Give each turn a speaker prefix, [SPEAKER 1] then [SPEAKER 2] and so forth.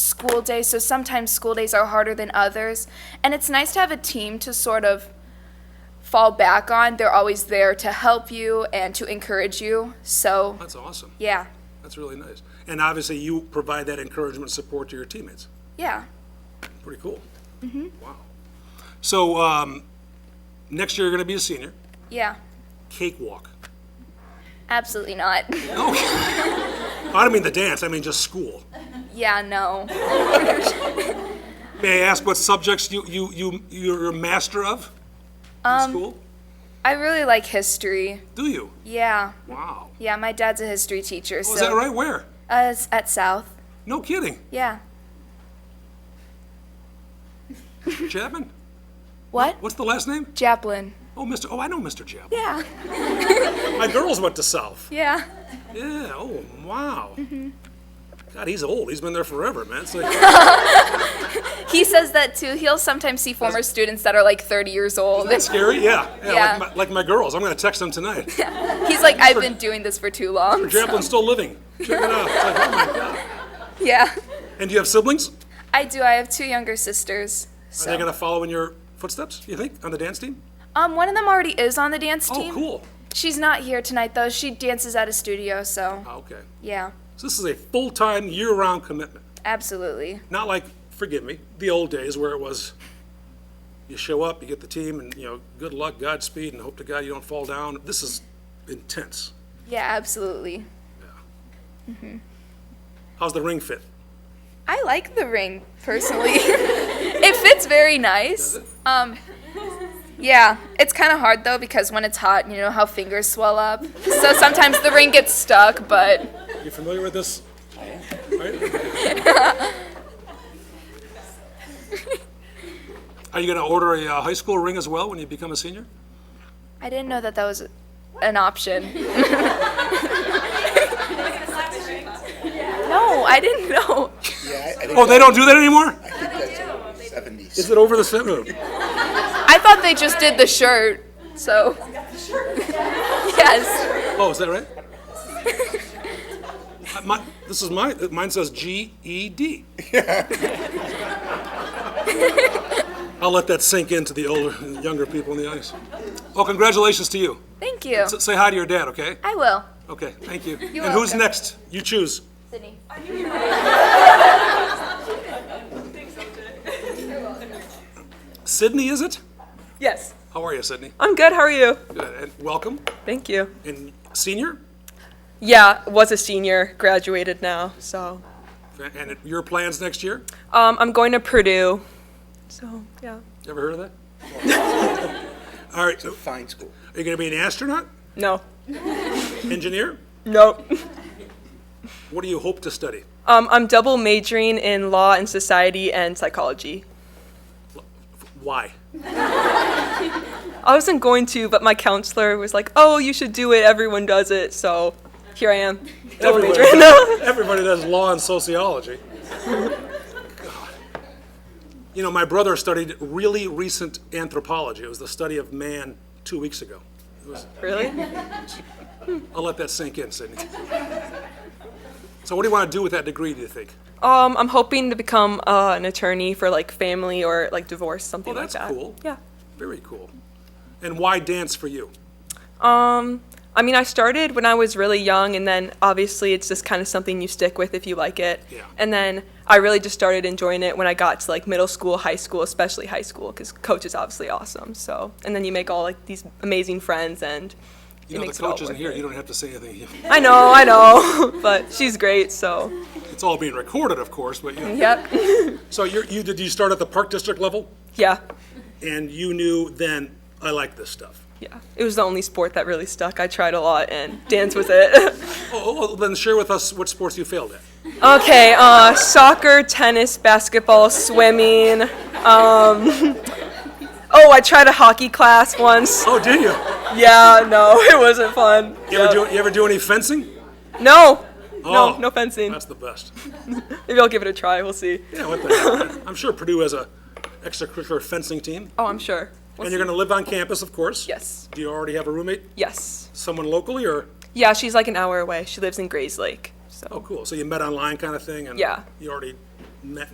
[SPEAKER 1] school day, so sometimes school days are harder than others. And it's nice to have a team to sort of fall back on. They're always there to help you and to encourage you. So,
[SPEAKER 2] That's awesome.
[SPEAKER 1] yeah,
[SPEAKER 2] That's really nice. And obviously, you provide that encouragement and support to your teammates.
[SPEAKER 1] yeah.
[SPEAKER 2] Pretty cool.
[SPEAKER 1] Mm-hmm.
[SPEAKER 2] Wow. So, um, next year, you're going to be a senior.
[SPEAKER 1] Yeah,
[SPEAKER 2] Cakewalk.
[SPEAKER 1] absolutely not.
[SPEAKER 2] I don't mean the dance, I mean just school.
[SPEAKER 1] yeah, no.
[SPEAKER 2] May I ask what subjects you, you, you, you're a master of in
[SPEAKER 1] Um,
[SPEAKER 2] school?
[SPEAKER 1] I really like history.
[SPEAKER 2] Do you?
[SPEAKER 1] Yeah,
[SPEAKER 2] Wow.
[SPEAKER 1] yeah. My dad's a history teacher. so
[SPEAKER 2] Oh, is that right? Where?
[SPEAKER 1] Uh, it's at South.
[SPEAKER 2] No kidding.
[SPEAKER 1] Yeah.
[SPEAKER 2] Chapman?
[SPEAKER 1] What?
[SPEAKER 2] What's the last name?
[SPEAKER 1] Japlin.
[SPEAKER 2] Oh, Mr. Oh, I know Mr. Chapman.
[SPEAKER 1] Yeah.
[SPEAKER 2] My girls went to South.
[SPEAKER 1] Yeah.
[SPEAKER 2] Yeah, oh, wow.
[SPEAKER 1] Mm-hmm.
[SPEAKER 2] God, he's old. He's been there forever, man. It's like,
[SPEAKER 1] He says that too. He'll sometimes see former students that are like 30 years old.
[SPEAKER 2] that's scary. Yeah, yeah.
[SPEAKER 1] Oh, Yeah.
[SPEAKER 2] Like, my, like my girls. I'm going to text them tonight.
[SPEAKER 1] He's like, I've been doing this for too long.
[SPEAKER 2] Jacqueline's still living. Check it out. It's like, oh my God.
[SPEAKER 1] Yeah.
[SPEAKER 2] And do you have siblings?
[SPEAKER 1] I do. I have two younger sisters.
[SPEAKER 2] Are they
[SPEAKER 1] So.
[SPEAKER 2] going to follow in your footsteps, you think, on the dance team?
[SPEAKER 1] Um, one of them already is on the dance
[SPEAKER 2] Oh,
[SPEAKER 1] team.
[SPEAKER 2] cool.
[SPEAKER 1] She's not here tonight though. She dances at a studio, so
[SPEAKER 2] Ah, okay.
[SPEAKER 1] yeah,
[SPEAKER 2] So this is a full-time, year-round commitment.
[SPEAKER 1] absolutely.
[SPEAKER 2] Not like, forgive me, the old days where it was, you show up, you get the team, and, you know, good luck, Godspeed, and hope to God you don't fall down. This is intense.
[SPEAKER 1] Yeah, absolutely.
[SPEAKER 2] How's the ring fit?
[SPEAKER 1] I like the ring personally. it fits very nice. Um, yeah, it's kind of hard though because when it's hot, you know how fingers swell up. So sometimes the ring gets stuck, but
[SPEAKER 2] You familiar with this? Right? Are you going to order a uh, high school ring as well when you become a senior?
[SPEAKER 1] I didn't know that that was an option. no, I didn't know.
[SPEAKER 3] Yeah, I, I think
[SPEAKER 2] Oh, they don't do that anymore?
[SPEAKER 3] that's in the seventies.
[SPEAKER 2] Is it over the seven?
[SPEAKER 1] I thought they just did the shirt. So yes.
[SPEAKER 2] Oh, is that right? Uh, my- this is mine. Uh, Mine says G E D. I'll let that sink into the older, younger people in the audience. Well, congratulations to you.
[SPEAKER 1] Thank you.
[SPEAKER 2] S- Say hi to your dad, okay?
[SPEAKER 1] I will.
[SPEAKER 2] Okay, thank you. And who's
[SPEAKER 1] welcome.
[SPEAKER 2] next? You choose.
[SPEAKER 1] Sydney.
[SPEAKER 2] Sydney, is it?
[SPEAKER 4] Yes.
[SPEAKER 2] How are you, Sydney?
[SPEAKER 4] I'm good. How are you?
[SPEAKER 2] Good. And welcome.
[SPEAKER 4] Thank you.
[SPEAKER 2] And senior?
[SPEAKER 4] Yeah, was a senior, graduated now. So,
[SPEAKER 2] And your plans next year?
[SPEAKER 4] um, I'm going to Purdue. So, yeah.
[SPEAKER 2] You ever heard of that? All right. so
[SPEAKER 3] Fine school.
[SPEAKER 2] Are you going to be an astronaut?
[SPEAKER 4] No.
[SPEAKER 2] Engineer?
[SPEAKER 4] Nope.
[SPEAKER 2] What do you hope to study?
[SPEAKER 4] Um, I'm double majoring in law and society and psychology.
[SPEAKER 2] Why?
[SPEAKER 4] I wasn't going to, but my counselor was like, "Oh, you should do it. Everyone does it." So, here I am. Double
[SPEAKER 2] Everybody,
[SPEAKER 4] majoring.
[SPEAKER 2] everybody does law and sociology. You know, my brother studied really recent anthropology. It was the study of man two weeks ago. It was,
[SPEAKER 4] really?
[SPEAKER 2] I'll let that sink in, Sydney. So, what do you want to do with that degree, do you think?
[SPEAKER 4] Um, I'm hoping to become uh, an attorney for like family or like divorce, something
[SPEAKER 2] Well, that's
[SPEAKER 4] like that.
[SPEAKER 2] cool.
[SPEAKER 4] Yeah.
[SPEAKER 2] Very cool. And why dance for you?
[SPEAKER 4] Um, I mean, I started when I was really young, and then obviously it's just kind of something you stick with if you like it.
[SPEAKER 2] Yeah.
[SPEAKER 4] And then I really just started enjoying it when I got to like middle school, high school, especially high school, because coach is obviously awesome. So, and then you make all like these amazing friends, and
[SPEAKER 2] You
[SPEAKER 4] it
[SPEAKER 2] know, the
[SPEAKER 4] makes it all
[SPEAKER 2] coach isn't
[SPEAKER 4] worth
[SPEAKER 2] here.
[SPEAKER 4] it.
[SPEAKER 2] You don't have to say anything.
[SPEAKER 4] I know, I know, but she's great. So,
[SPEAKER 2] It's all being recorded, of course, but you know.
[SPEAKER 4] yep,
[SPEAKER 2] So, you're, you did you start at the park district level?
[SPEAKER 4] yeah,
[SPEAKER 2] And you knew then, I like this stuff.
[SPEAKER 4] yeah. It was the only sport that really stuck. I tried a lot, and dance was it.
[SPEAKER 2] Oh, oh, oh, then share with us what sports you failed at.
[SPEAKER 4] Okay, uh, soccer, tennis, basketball, swimming. Um, oh, I tried a hockey class once.
[SPEAKER 2] Oh, did you?
[SPEAKER 4] Yeah, no, it wasn't fun.
[SPEAKER 2] You ever do, you ever do any fencing?
[SPEAKER 4] No,
[SPEAKER 2] Oh,
[SPEAKER 4] no, no fencing.
[SPEAKER 2] That's the best.
[SPEAKER 4] Maybe I'll give it a try. We'll see.
[SPEAKER 2] Yeah, what the heck? I'm sure Purdue has a extracurricular fencing team.
[SPEAKER 4] Oh, I'm sure. We'll
[SPEAKER 2] And you're
[SPEAKER 4] see.
[SPEAKER 2] going to live on campus, of course?
[SPEAKER 4] Yes.
[SPEAKER 2] Do you already have a roommate?
[SPEAKER 4] Yes.
[SPEAKER 2] Someone locally or?
[SPEAKER 4] Yeah, she's like an hour away. She lives in Grays Lake. So.
[SPEAKER 2] Oh, cool. So you met online kind of thing and
[SPEAKER 4] Yeah.
[SPEAKER 2] you already met